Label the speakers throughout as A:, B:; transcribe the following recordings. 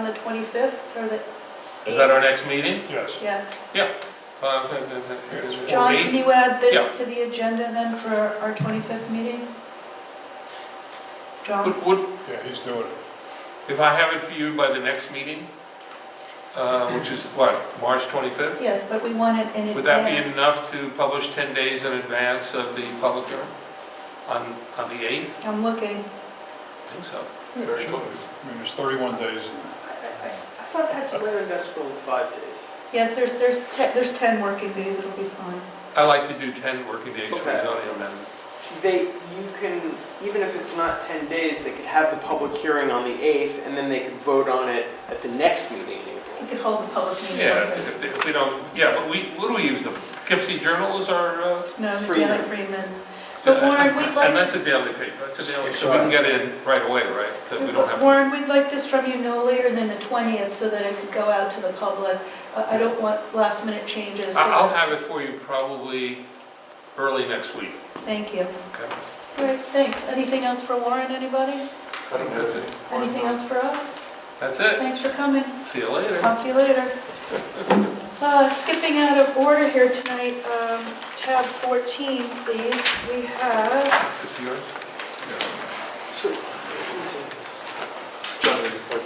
A: the 25th for the,
B: Is that our next meeting?
C: Yes.
A: yes.
B: Uh, the- the- the- it's
A: John,
B: 14th?
A: can you add this
B: Yeah.
A: to the agenda then for our 25th meeting? John,
B: Would, would,
C: Yeah, he's doing it.
B: if I have it for you by the next meeting, uh, which is what, March 25th?
A: yes, but we want it in advance.
B: Would that be enough to publish 10 days in advance of the public hearing on, on the 8th?
A: I'm looking.
B: I think so.
C: Yeah,
B: Very
C: sure.
B: cool.
C: I mean, there's 31 days.
D: I I- I thought Pennsylvania Industrial was five days.
A: Yes, there's, there's 10, there's 10 working days, it'll be fine.
B: I like to do 10 working days for
D: Okay.
B: zoning amendment.
D: They, you can, even if it's not 10 days, they could have the public hearing on the 8th, and then they could vote on it at the next meeting in
A: We
D: April.
A: could hold the public meeting.
B: Yeah, if they- if we don't, yeah, but we, what do we use, the Poughkeepsie Journal is our, uh,
A: No, the
D: Freeman.
A: Daily Freeman. But Warren, we'd
B: and
A: like,
B: that's a daily paper, that's a daily, so we can get in right away, right? That we don't have to
A: Warren, we'd like this from you no later than the 20th so that it could go out to the public. I I don't want last minute changes. so-
B: I- I'll have it for you probably early next week.
A: Thank you.
B: Okay.
A: Great, thanks. Anything else for Warren, anybody?
B: I think that's it.
A: Anything else for us?
B: That's it.
A: Thanks for coming.
B: See you later.
A: Talk to you later. Uh, Skipping out of order here tonight, um, tab 14, please. We have,
B: It's yours.
D: So,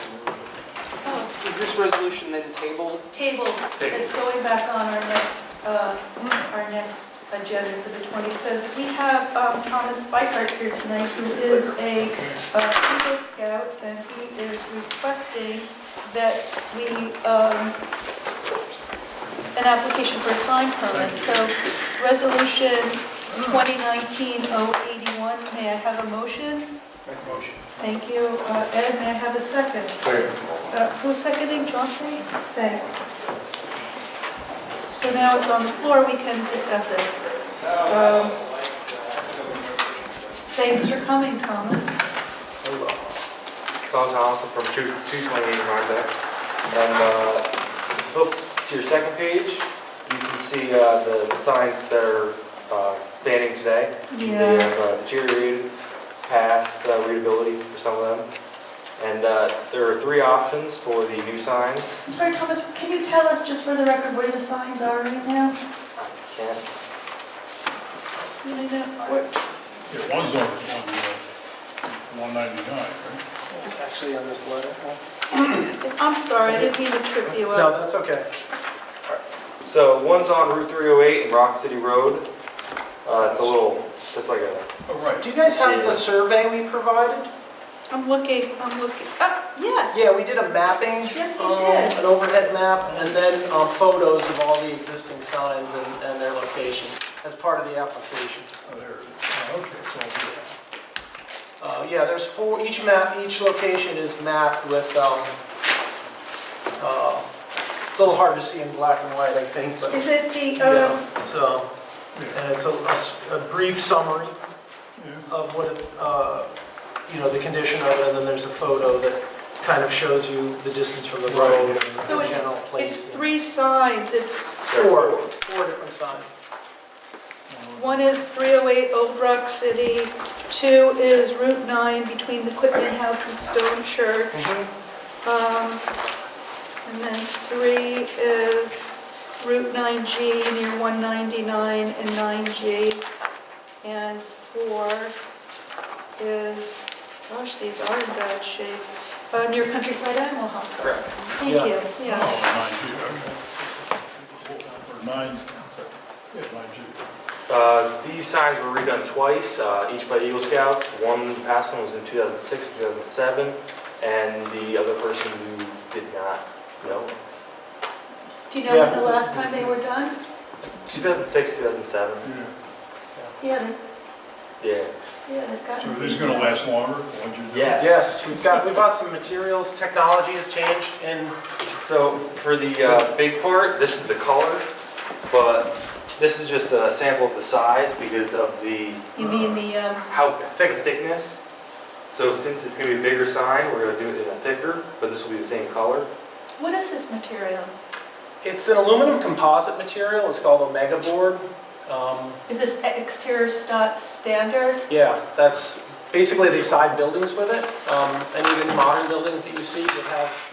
A: oh,
D: is this resolution then tabled?
A: table.
B: Table.
A: It's going back on our next, uh, our next agenda for the 25th. We have um, Thomas Bikart here tonight, who is a uh, Eagle Scout, and he is requesting that we, um, an application for a sign permit. So Resolution 2019-081, may I have a motion?
C: Make motion.
A: Thank you. Uh, Ed, may I have a second? Uh, Who's seconding, Chauncey? Thanks. So now it's on the floor, we can discuss it. Um, Thanks for coming, Thomas.
E: Oh, Tom Thompson from 2- 228 Rhinebeck. And uh, flip to your second page, you can see uh, the signs that are uh, standing today. They have uh, deteriorated past uh, readability for some of them. And uh, there are three options for the new signs.
A: I'm sorry, Thomas, can you tell us, just for the record, where the signs are right now?
E: I can't,
A: You know, where-
C: Yeah, one's on, on, uh, 199, right?
F: It's actually on this letter.
A: I'm sorry, I didn't mean to trip you
F: No,
A: up.
F: that's okay.
E: so one's on Route 308 and Rock City Road. Uh, The little, just like a,
C: Oh, right.
F: Do you guys have the survey we provided?
A: I'm looking, I'm looking, ah, yes.
F: Yeah, we did a mapping.
A: Yes, you
F: um,
A: did.
F: An overhead map, and then um, photos of all the existing signs and and their location as part of the application.
C: Oh, there it is. Oh, okay, it's all good.
F: Uh, Yeah, there's four, each map, each location is mapped with, um, uh, a little hard to see in black and white, I think, but,
A: Is it the, um,
F: yeah, so, and it's a- a s- a brief summary
C: Yeah,
F: of what, it, uh, you know, the condition of it, and then there's a photo that kind of shows you the distance from the road and
A: So
F: the general place.
A: it's three signs, it's,
F: Four, four different signs.
A: one is 308 Old Rock City, two is Route 9 between the Quitman House and Stone Church. Um, And then three is Route 9G near 199 and 9G. And four is, gosh, these are in bad shape, uh, near Countryside Animal Hospital.
E: correct.
A: Thank
F: Yeah.
A: you, yeah.
C: Oh, 9G, okay. Or 9, yeah, 9G.
E: Uh, These signs were redone twice, uh, each by Eagle Scouts. One past one was in 2006, 2007, and the other person who did not know.
A: Do you know when
F: Yeah.
A: the last time they were done?
E: 2006, 2007,
C: Yeah,
A: Yeah, they-
E: yeah.
A: yeah, they've gotten.
C: so are these gonna last longer, once you do?
E: Yeah.
F: Yes, we've got, we've got some materials, technology has changed, and
E: So for the uh, big part, this is the color, but this is just a sample of the size because of the,
A: You mean the, um,
E: how thick thickness. So since it's going to be a bigger sign, we're going to do it in a thicker, but this will be the same color.
A: what is this material?
F: it's an aluminum composite material, it's called Omega Board. Um,
A: Is this exterior sta- standard?
F: Yeah, that's, basically they side buildings with it, um, and even modern buildings that you see would have